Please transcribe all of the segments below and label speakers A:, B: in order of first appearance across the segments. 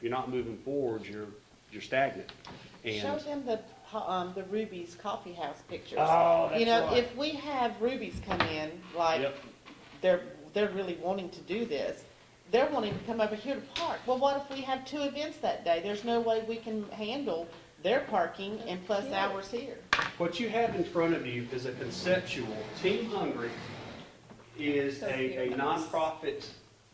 A: you're not moving forward, you're, you're stagnant.
B: Show
A: And,
B: them the, um, the Ruby's Coffee House pictures.
A: oh, that's
B: You know,
A: right.
B: if we have Ruby's come in, like,
A: Yep,
B: they're, they're really wanting to do this, they're wanting to come over here to park. Well, what if we have two events that day? There's no way we can handle their parking and plus
C: Yeah.
B: ours here.
A: what you have in front of you is a conceptual, Team Hungry is a, a nonprofit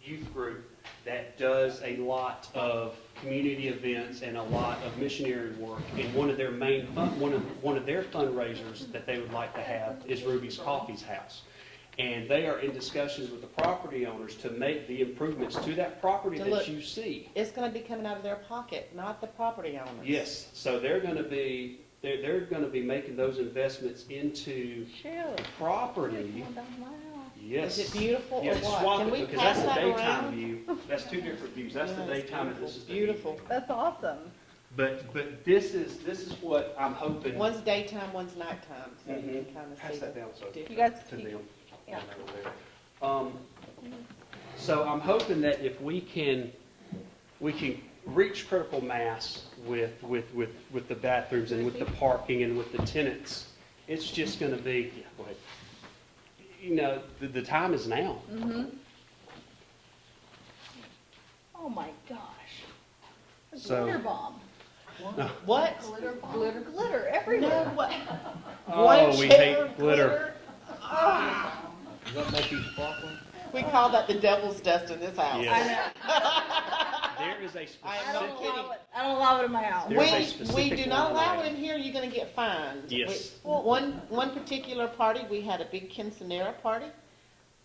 A: youth group that does a lot of community events and a lot of missionary work. And one of their main, fun- one of, one of their fundraisers that they would like to have is Ruby's Coffee's House. And they are in discussions with the property owners to make the improvements to that property
B: To
A: that
B: look-
A: you see.
B: It's gonna be coming out of their pocket, not the property owners.
A: Yes, so they're gonna be, they're, they're gonna be making those investments into
C: Sure.
A: property. Yes.
B: Is it beautiful or
A: Yes,
B: what?
A: swap
B: Can
A: it,
B: we
A: because that's
B: pass
A: the
B: that
A: daytime
B: around?
A: view. That's two different views. That's the
B: Yes,
A: daytime and this is the.
B: Beautiful.
C: That's awesome.
A: But, but this is, this is what I'm hoping.
B: One's daytime, one's nighttime, so you
A: Mhm.
B: can kinda
A: Pass
B: see
A: that
B: the
A: down so
C: You
B: difference.
C: guys,
A: to
C: you-
A: them.
C: yeah.
A: Um, so I'm hoping that if we can, we can reach critical mass with, with, with, with the bathrooms and with the parking and with the tenants, it's just gonna be, yeah, go ahead. You know, the, the time is now.
C: Mhm. Oh my gosh. A
A: So-
C: glitter bomb.
B: What?
C: Glitter bomb. Glitter, glitter
B: No,
C: everywhere.
B: what?
A: Oh, we hate
B: Wheelchair,
A: glitter.
B: Ah.
D: Does that make you sparkle?
B: We call that the devil's dust in this house.
C: I
A: Yes.
C: know.
A: There is a
C: I don't
A: specific,
C: allow it. I don't allow it in my house.
A: There is a
B: We, we
A: specific
B: do
A: line
B: not allow it
A: item.
B: in here, you're gonna get fined.
A: Yes.
B: We- One, one particular party, we had a big quinceanera party,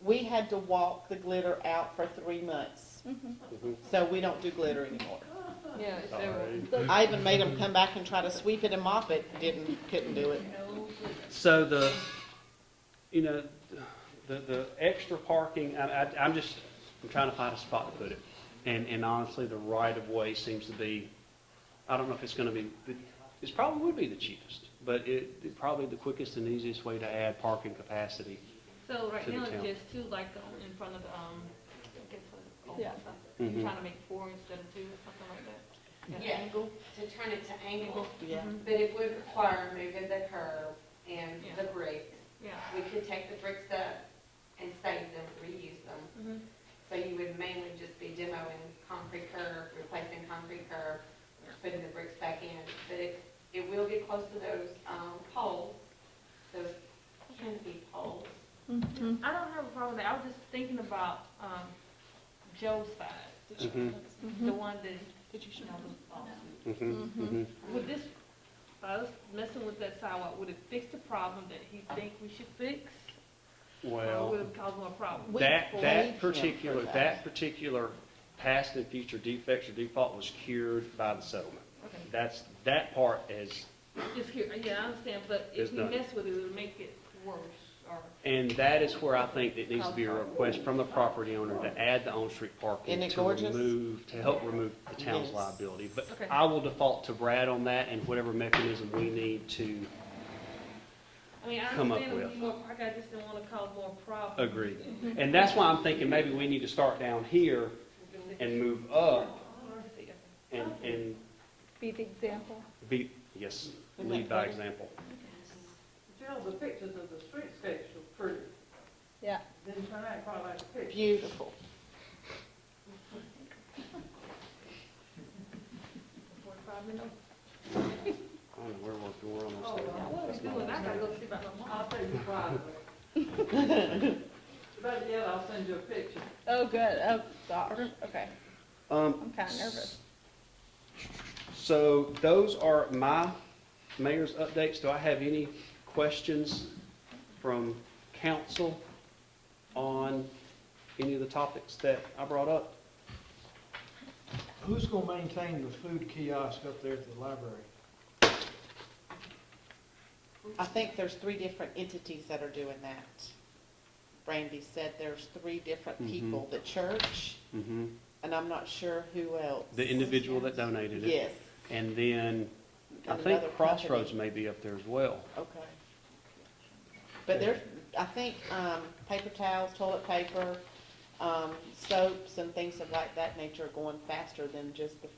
B: we had to walk the glitter out for three months,
A: Mhm.
B: so we don't do glitter anymore.
E: Yeah, it's everywhere.
B: I even made them come back and try to sweep it and mop it, didn't, couldn't do it.
A: so the, you know, the, the extra parking, I, I, I'm just, I'm trying to find a spot to put it. And, and honestly, the right of way seems to be, I don't know if it's gonna be, the- it's probably would be the cheapest, but it, it probably the quickest and easiest way to add parking capacity.
E: So right
A: To the
E: now, it's
A: town.
E: just two, like, um, in front of, the, um, I guess, what,
C: Yeah.
A: Mhm.
E: you're trying to make four instead of two, or something like that? At an
F: Yeah.
E: angle? Mm-hmm.
F: to turn it to angle,
B: Yeah.
F: but it would require moving the curb and the bricks.
E: Yeah.
F: We could take the bricks up and save them, reuse them.
E: Mm-hmm.
F: So you would mainly just be demoing concrete curb, replacing concrete curb, putting the bricks back in. But it, it will get close to those, um, poles, those can be poles.
C: Mhm.
E: I don't have a problem with that, I was just thinking about, um, Joe's side,
A: Mhm,
C: Mm-hmm.
E: the one that, you know, the, um,
A: mhm, mhm.
E: Would this, by us messing with that sidewalk, would it fix the problem that he think we should fix? Or would
A: Well,
E: it cause more problems?
B: We
A: that,
B: paid him
A: that
B: for
A: particular,
B: that.
A: that particular past and future defects or default was cured by the settlement.
E: Okay,
A: That's, that part is
E: Just here, yeah, I understand, but if
A: It's
E: we
A: done.
E: mess with it, it would make it worse, or,
A: And that is where I think it needs to be a request from the property owner to add the on-street parking.
B: Isn't it
A: to
B: gorgeous?
A: remove- To help remove the town's
B: Yes.
A: liability. But
E: Okay.
A: I will default to Brad on that and whatever mechanism we need to
E: I mean, I
A: Come up
E: understand it would be
A: with.
E: more, I just didn't wanna cause more problems.
A: agree.
B: Mm-hmm.
A: And that's why I'm thinking maybe we need to start down here and move up and, and
C: Be the example.
A: be, yes, lead by example.
G: Jill, the pictures of the streetscapes were pretty,
C: Yeah.
G: didn't turn out quite like the pictures.
B: Beautiful.
E: Forty-five minutes.
A: I don't know where we're, we're on this thing.
E: What is doing, I gotta go see about my mom.
G: I'll send you privately. But yet I'll send you a picture.
C: Oh, good. Oh, gosh. Okay.
B: Oh.
A: Um,
C: I'm kind of nervous.
A: So those are my mayor's updates. Do I have any questions from council on any of the topics that I brought up?
D: Who's gonna maintain the food kiosk up there at the library?
B: I think there's three different entities that are doing that. Brandy said there's three different
A: Mhm.
B: people, the church,
A: Mm-hmm.
B: and I'm not sure who else.
A: The individual that donated it?
B: Yes,
A: And then I
B: And
A: think
B: another
A: Crossroads may
B: company.
A: be up there as well.
B: okay. But there's, I think, um, paper towels, toilet paper, um, soaps and things of like that nature are going faster than just the